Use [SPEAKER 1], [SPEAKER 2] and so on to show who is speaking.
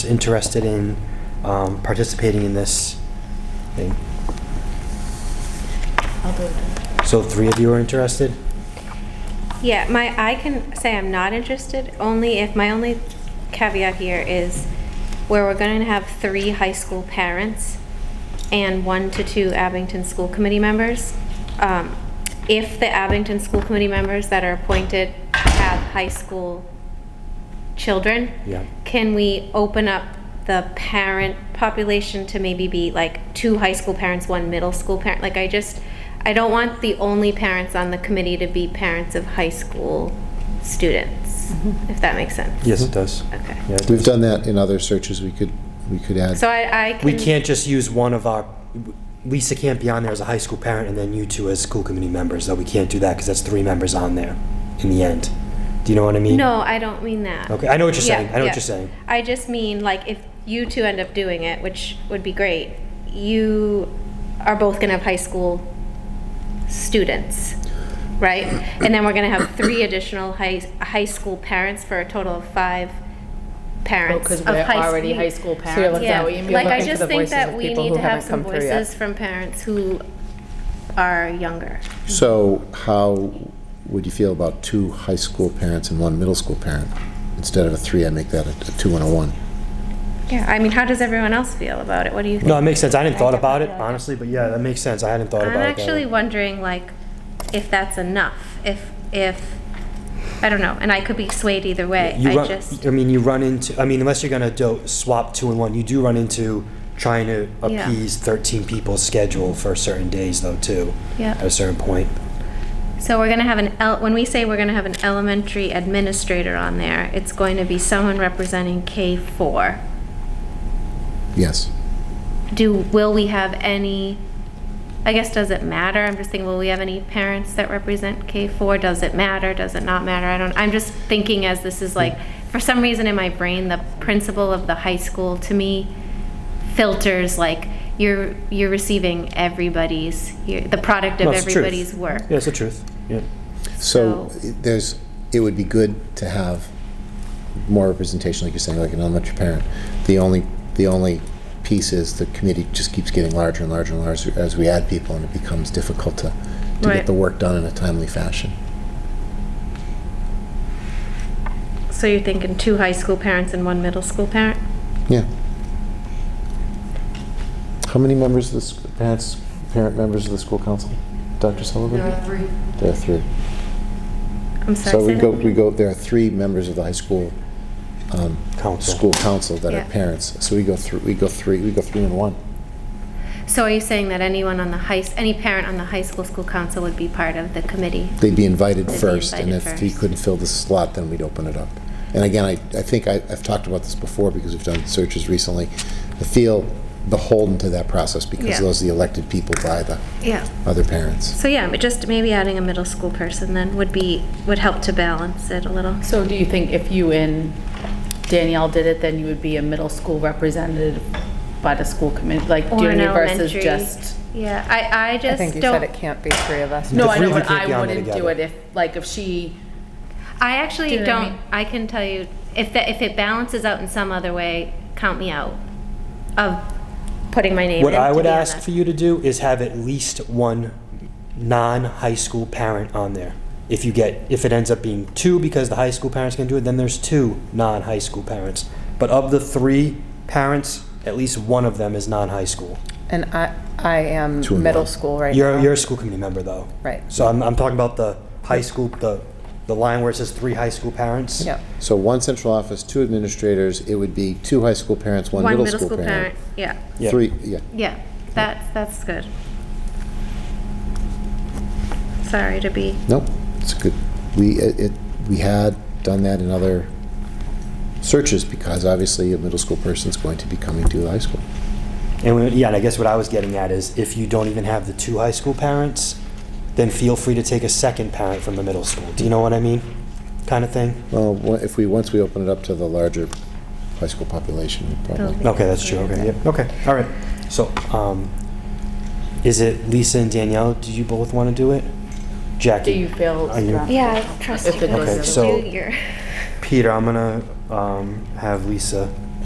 [SPEAKER 1] interested in um, participating in this thing.
[SPEAKER 2] I'll do it.
[SPEAKER 1] So three of you are interested?
[SPEAKER 3] Yeah, my, I can say I'm not interested, only if, my only caveat here is where we're going to have three high school parents and one to two Abington School Committee members. Um, If the Abington School Committee members that are appointed have high school children.
[SPEAKER 1] Yeah.
[SPEAKER 3] Can we open up the parent population to maybe be like two high school parents, one middle school parent? Like I just, I don't want the only parents on the committee to be parents of high school students, if that makes sense.
[SPEAKER 1] Yes, it does.
[SPEAKER 3] Okay.
[SPEAKER 1] Mm-hmm. Yeah, it
[SPEAKER 4] We've
[SPEAKER 1] does.
[SPEAKER 4] done that in other searches, we could, we could add.
[SPEAKER 3] So I, I can.
[SPEAKER 1] We can't just use one of our, Lisa can't be on there as a high school parent and then you two as school committee members, though we can't do that because that's three members on there in the end. Do you know what I mean?
[SPEAKER 3] No, I don't mean that.
[SPEAKER 1] Okay, I know what you're
[SPEAKER 3] Yeah,
[SPEAKER 1] saying. I know
[SPEAKER 3] yeah.
[SPEAKER 1] what you're saying.
[SPEAKER 3] I just mean, like, if you two end up doing it, which would be great, you are both gonna have high school students, right? And then we're gonna have three additional high, high school parents for a total of five parents
[SPEAKER 2] because
[SPEAKER 3] of
[SPEAKER 2] we're
[SPEAKER 3] high
[SPEAKER 2] already
[SPEAKER 3] school.
[SPEAKER 2] high school
[SPEAKER 5] you're
[SPEAKER 2] parents.
[SPEAKER 5] looking-
[SPEAKER 2] is that
[SPEAKER 3] Yeah,
[SPEAKER 2] what you mean?
[SPEAKER 3] like, I
[SPEAKER 5] looking for
[SPEAKER 3] just
[SPEAKER 5] the
[SPEAKER 3] think
[SPEAKER 5] voices
[SPEAKER 3] that
[SPEAKER 5] of
[SPEAKER 3] we
[SPEAKER 5] people
[SPEAKER 3] need
[SPEAKER 5] who
[SPEAKER 3] to have
[SPEAKER 5] haven't
[SPEAKER 3] some
[SPEAKER 5] come through yet.
[SPEAKER 3] voices from parents who are younger.
[SPEAKER 4] So how would you feel about two high school parents and one middle school parent? Instead of a three, I make that a a two and a one.
[SPEAKER 3] Yeah, I mean, how does everyone else feel about it? What do you think?
[SPEAKER 1] No, it makes sense. I hadn't thought about it, honestly, but yeah, that makes sense. I hadn't thought
[SPEAKER 3] I'm
[SPEAKER 1] about it. that
[SPEAKER 3] actually
[SPEAKER 1] way.
[SPEAKER 3] wondering, like, if that's enough, if, if, I don't know, and I could be swayed either way,
[SPEAKER 1] You
[SPEAKER 3] I
[SPEAKER 1] run,
[SPEAKER 3] just,
[SPEAKER 1] I mean, you run into, I mean, unless you're gonna do, swap two and one, you do run into trying to
[SPEAKER 3] Yeah.
[SPEAKER 1] appease thirteen people's schedule for certain days though, too.
[SPEAKER 3] Yeah.
[SPEAKER 1] At a certain point.
[SPEAKER 3] so we're gonna have an, el- when we say we're gonna have an elementary administrator on there, it's going to be someone representing K-4.
[SPEAKER 4] Yes.
[SPEAKER 3] Do, will we have any, I guess, does it matter? I'm just thinking, will we have any parents that represent K-4? Does it matter? Does it not matter? I don't, I'm just thinking as this is like, for some reason in my brain, the principal of the high school to me filters like, you're, you're receiving everybody's, you're the product of
[SPEAKER 1] No, it's the truth.
[SPEAKER 3] everybody's work.
[SPEAKER 1] Yeah, it's the truth. Yeah.
[SPEAKER 4] So
[SPEAKER 3] So-
[SPEAKER 4] it- there's, it would be good to have more representation, like you're saying, like an elementary parent. The only, the only piece is the committee just keeps getting larger and larger and larger as we add people, and it becomes difficult to, to
[SPEAKER 3] Right.
[SPEAKER 4] get the work done in a timely fashion.
[SPEAKER 3] So you're thinking two high school parents and one middle school parent?
[SPEAKER 4] Yeah. How many members of the, sc- parents, parent members of the school council? Dr. Sullivan? There are three. There are three.
[SPEAKER 3] I'm sorry.
[SPEAKER 4] So
[SPEAKER 3] say
[SPEAKER 4] we
[SPEAKER 3] that
[SPEAKER 4] go,
[SPEAKER 3] again.
[SPEAKER 4] we go, there are three members of the high school, um,
[SPEAKER 1] Council.
[SPEAKER 4] school council that
[SPEAKER 3] Yeah.
[SPEAKER 4] are parents. So we go through, we go three, we go three and one.
[SPEAKER 3] So are you saying that anyone on the high, any parent on the high school school council would be part of the committee?
[SPEAKER 4] They'd be invited
[SPEAKER 3] They'd be
[SPEAKER 4] first, and
[SPEAKER 3] invited
[SPEAKER 4] if he
[SPEAKER 3] first.
[SPEAKER 4] couldn't fill the slot, then we'd open it up. And again, I, I think I, I've talked about this before because we've done searches recently. I feel beholden to that process because
[SPEAKER 3] Yeah.
[SPEAKER 4] those are the elected people by the
[SPEAKER 3] Yeah.
[SPEAKER 4] other parents.
[SPEAKER 3] So yeah, but just maybe adding a middle school person then would be, would help to balance it a little.
[SPEAKER 5] So do you think if you and Danielle did it, then you would be a middle school representative by the school committee, like, do
[SPEAKER 3] Or
[SPEAKER 5] you
[SPEAKER 3] an
[SPEAKER 5] know, versus
[SPEAKER 3] elementary.
[SPEAKER 5] just?
[SPEAKER 3] Yeah, I, I
[SPEAKER 5] I
[SPEAKER 3] just
[SPEAKER 5] think you said it
[SPEAKER 3] don't,
[SPEAKER 5] can't be three of us.
[SPEAKER 1] The
[SPEAKER 5] No, I
[SPEAKER 1] three
[SPEAKER 5] know,
[SPEAKER 1] of you
[SPEAKER 5] but
[SPEAKER 1] can't be
[SPEAKER 5] I
[SPEAKER 1] on there
[SPEAKER 5] wouldn't do it
[SPEAKER 1] together.
[SPEAKER 5] if, like, if she,
[SPEAKER 3] I actually
[SPEAKER 5] Do you know what I
[SPEAKER 3] don't,
[SPEAKER 5] mean?
[SPEAKER 3] I can tell you, if that, if it balances out in some other way, count me out of putting my name in
[SPEAKER 1] What
[SPEAKER 3] to
[SPEAKER 1] I would
[SPEAKER 3] be on
[SPEAKER 1] ask
[SPEAKER 3] that.
[SPEAKER 1] for you to do is have at least one non-high school parent on there. If you get, if it ends up being two, because the high school parents can do it, then there's two non-high school parents. But of the three parents, at least one of them is non-high school.
[SPEAKER 5] and I, I am
[SPEAKER 4] Two and
[SPEAKER 5] middle
[SPEAKER 4] one.
[SPEAKER 5] school right
[SPEAKER 1] You're,
[SPEAKER 5] now.
[SPEAKER 1] you're a school committee member, though.
[SPEAKER 5] Right.
[SPEAKER 1] So I'm, I'm talking about the high school, the, the line where it says three high school parents.
[SPEAKER 5] Yep.
[SPEAKER 4] So one central office, two administrators, it would be two high school parents, one middle school parent.
[SPEAKER 3] Yeah,
[SPEAKER 1] Yeah.
[SPEAKER 4] Three, yeah,
[SPEAKER 3] yeah, that's, that's good. Sorry to be.
[SPEAKER 4] nope, it's good. We, it, it- we had done that in other searches because obviously a middle school person's going to be coming to the high school.
[SPEAKER 1] And we, yeah, and I guess what I was getting at is if you don't even have the two high school parents, then feel free to take a second parent from the middle school. Do you know what I mean? Kind of thing?
[SPEAKER 4] Well, wha- if we, once we open it up to the larger high school population, we probably.
[SPEAKER 1] Okay, that's true. Okay, yeah, okay, all right. So, um, is it Lisa and Danielle? Do you both want to do it?
[SPEAKER 5] Do
[SPEAKER 1] Jackie?
[SPEAKER 5] you feel?
[SPEAKER 1] Are you-
[SPEAKER 3] Yeah, I trust
[SPEAKER 5] If
[SPEAKER 3] you
[SPEAKER 5] it
[SPEAKER 3] guys
[SPEAKER 1] Okay,
[SPEAKER 3] to
[SPEAKER 1] so-
[SPEAKER 3] do your.
[SPEAKER 1] Peter, I'm gonna um, have Lisa